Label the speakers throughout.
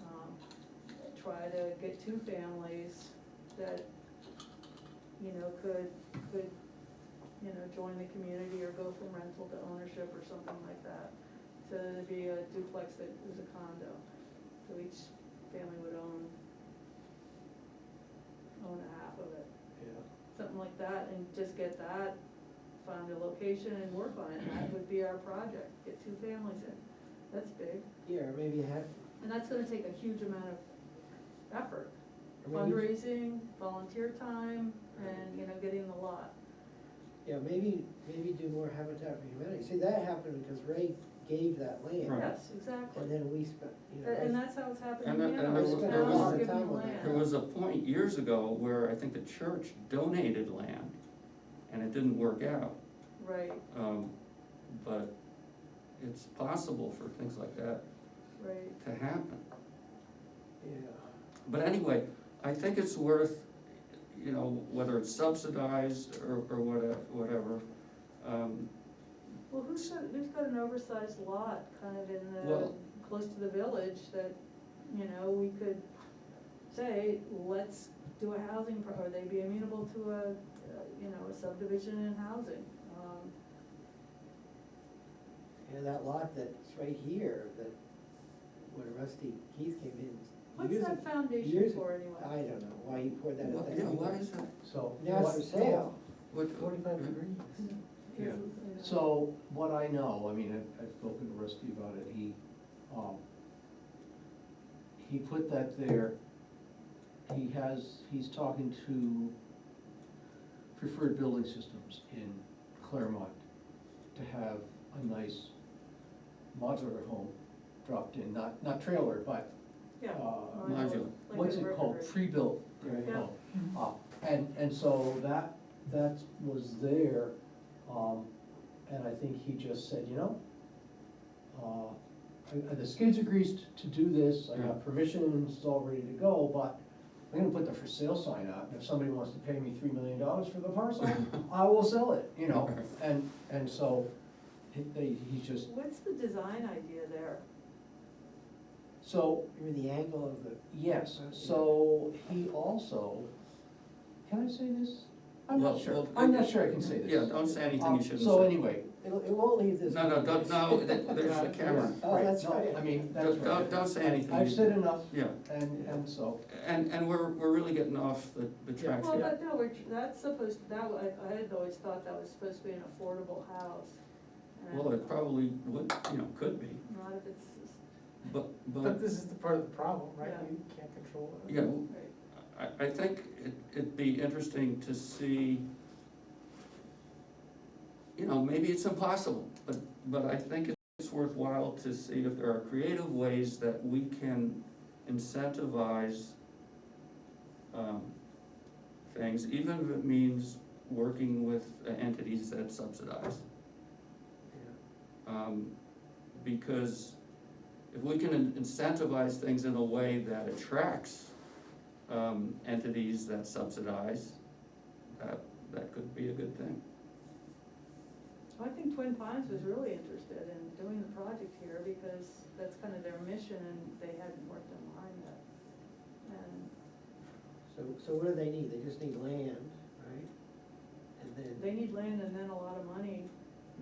Speaker 1: um, try to get two families that, you know, could, could, you know, join the community or go from rental to ownership or something like that. So it'd be a duplex that is a condo, so each family would own, own a half of it,
Speaker 2: yeah,
Speaker 1: something like that, and just get that, find a location and work on it, that would be our project, get two families in, that's big.
Speaker 3: Yeah, or maybe have,
Speaker 1: And that's gonna take a huge amount of effort,
Speaker 3: or maybe,
Speaker 1: fundraising, volunteer time, and, you know, getting the lot.
Speaker 3: yeah, maybe, maybe do more Habitat for Humanity. See, that happened because Ray gave that land,
Speaker 4: Right.
Speaker 1: Yes, exactly.
Speaker 3: and then we spent, you know.
Speaker 1: Tha- And
Speaker 3: I-
Speaker 1: that's how it's happening
Speaker 4: And that-
Speaker 1: now.
Speaker 4: and there
Speaker 1: is
Speaker 4: was-
Speaker 1: towns
Speaker 4: there was-
Speaker 1: give them
Speaker 4: There
Speaker 1: land.
Speaker 4: was a point years ago where I think the church donated land, and it didn't work out.
Speaker 1: Right,
Speaker 4: Um, But it's possible for things like that
Speaker 1: right,
Speaker 4: to happen.
Speaker 3: Yeah,
Speaker 4: But anyway, I think it's worth, you know, whether it's subsidized or, or whata- whatever. um,
Speaker 1: well, who's, got- who's got an oversized lot kind of in the,
Speaker 4: Well-
Speaker 1: close to the village that, you know, we could say, let's do a housing, pro- or they'd be amenable to a, uh, you know, a subdivision and housing. Um,
Speaker 3: and that lot that's right here, that, when Rusty Keith came in.
Speaker 1: What's
Speaker 3: years
Speaker 1: that
Speaker 3: ag-
Speaker 1: foundation
Speaker 3: years
Speaker 1: for
Speaker 3: ag-
Speaker 1: anyway?
Speaker 3: I don't know, why he poured that.
Speaker 4: what-
Speaker 3: in
Speaker 4: Yeah, what is that?
Speaker 2: so.
Speaker 3: Now it's
Speaker 2: what-
Speaker 3: for sale.
Speaker 4: What-
Speaker 2: Forty-five
Speaker 4: yeah.
Speaker 2: degrees.
Speaker 4: Yeah.
Speaker 1: this is, you know.
Speaker 2: So what I know, I mean, I've, I've spoken to Rusty about it, he, um, he put that there. He has, he's talking to Preferred Building Systems in Claremont to have a nice modular home dropped in, not, not trailer, but
Speaker 1: Yeah.
Speaker 2: uh,
Speaker 4: Modular.
Speaker 1: Like
Speaker 2: what's
Speaker 1: a
Speaker 2: it called,
Speaker 1: river.
Speaker 2: pre-built,
Speaker 3: Right.
Speaker 1: Yeah.
Speaker 2: uh, and, and so that, that was there, um, and I think he just said, you know, uh, I- I- the skids agrees to do this, I
Speaker 4: Yeah.
Speaker 2: got permission, it's all ready to go, but I'm gonna put the for sale sign out, and if somebody wants to pay me three million dollars for the parcel, I will sell it, you know, and, and so, he, they- he just,
Speaker 1: What's the design idea there?
Speaker 2: so,
Speaker 3: Remember the angle of the, uh,
Speaker 2: Yes, so he also, can I say this? I'm
Speaker 4: Well,
Speaker 2: not sure,
Speaker 4: well,
Speaker 2: I'm not sure I can say this.
Speaker 4: Yeah, don't say anything
Speaker 2: Um,
Speaker 4: you shouldn't say.
Speaker 2: So anyway.
Speaker 3: it, it won't leave this.
Speaker 4: No, no, don't, no, th- there's a camera.
Speaker 3: Oh,
Speaker 2: Right,
Speaker 3: that's
Speaker 2: no,
Speaker 3: right.
Speaker 2: I mean, that's
Speaker 4: Don't,
Speaker 2: right.
Speaker 4: don't- don't say anything.
Speaker 2: I've said enough,
Speaker 4: Yeah,
Speaker 2: and, and so,
Speaker 4: and, and we're, we're really getting off the, the tracks
Speaker 1: Well,
Speaker 4: here.
Speaker 1: but no, we're, that's supposed, that, wa- I, I had always thought that was supposed to be an affordable house. and
Speaker 4: Well, it probably would, you know, could be,
Speaker 1: Not if it's,
Speaker 4: but, but,
Speaker 5: But this is the part of the problem, right?
Speaker 1: Yeah.
Speaker 5: You can't control it.
Speaker 4: yeah,
Speaker 1: right,
Speaker 4: I, I think it- it'd be interesting to see, you know, maybe it's impossible, but, but I think it's worthwhile to see if there are creative ways that we can incentivize um, things, even if it means working with entities that subsidize. Um, Because if we can incentivize things in a way that attracts um, entities that subsidize, that, that could be a good thing.
Speaker 1: I think Twin Pines was really interested in doing the project here because that's kind of their mission and they hadn't worked on mine yet. And
Speaker 3: So, so what do they need? They just need land, right? And then
Speaker 1: they need land and then a lot of money.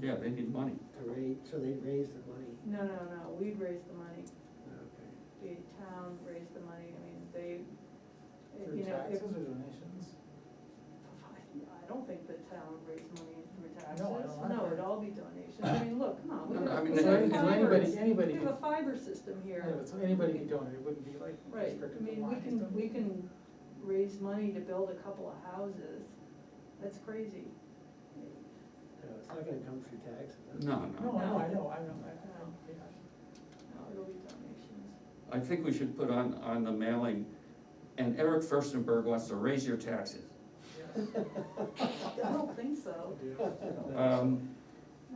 Speaker 4: Yeah, they need money.
Speaker 3: to raise, so they raise the money,
Speaker 1: No, no, no, we'd raise the money.
Speaker 3: okay.
Speaker 1: The town raised the money. I mean, they,
Speaker 5: Through
Speaker 1: you know, if,
Speaker 5: taxes or donations.
Speaker 1: I don't think the town raised money through taxes,
Speaker 5: No, I don't
Speaker 1: no, it'd
Speaker 5: either.
Speaker 1: all be donations, I mean, look, come on, we
Speaker 4: No, no, I
Speaker 1: have,
Speaker 4: mean,
Speaker 1: we
Speaker 4: they-
Speaker 1: have
Speaker 5: Because anybody,
Speaker 1: fibers, we
Speaker 5: anybody,
Speaker 1: have a
Speaker 5: could-
Speaker 1: fiber system
Speaker 5: yeah,
Speaker 1: here.
Speaker 5: so anybody can donate, it wouldn't be like
Speaker 1: Right, I
Speaker 5: restricted to
Speaker 1: mean, we
Speaker 5: lines,
Speaker 1: can,
Speaker 5: don't
Speaker 1: we can raise money to build a couple of houses, that's crazy.
Speaker 3: No, it's not gonna come through taxes.
Speaker 5: No,
Speaker 4: No, no.
Speaker 5: no, I know, I know, I know, yeah.
Speaker 1: No, it'll be donations,
Speaker 4: I think we should put on, on the mailing, and Eric Furstenberg wants to raise your taxes.
Speaker 5: yes.
Speaker 1: I don't think so.
Speaker 4: Um,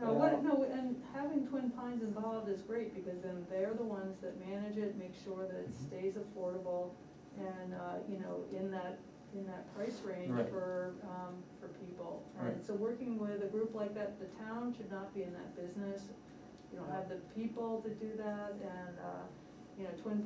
Speaker 1: No, what, no, and having Twin Pines involved is great, because then they're the ones that manage it, make sure that
Speaker 4: Mm-hmm.
Speaker 1: it stays affordable and, uh, you know, in that, in that price range
Speaker 4: Right.
Speaker 1: for, um, for people.
Speaker 4: Right.
Speaker 1: And so working with a group like that, the town should not be in that business, you don't have the people to do that, and, uh, you know, Twin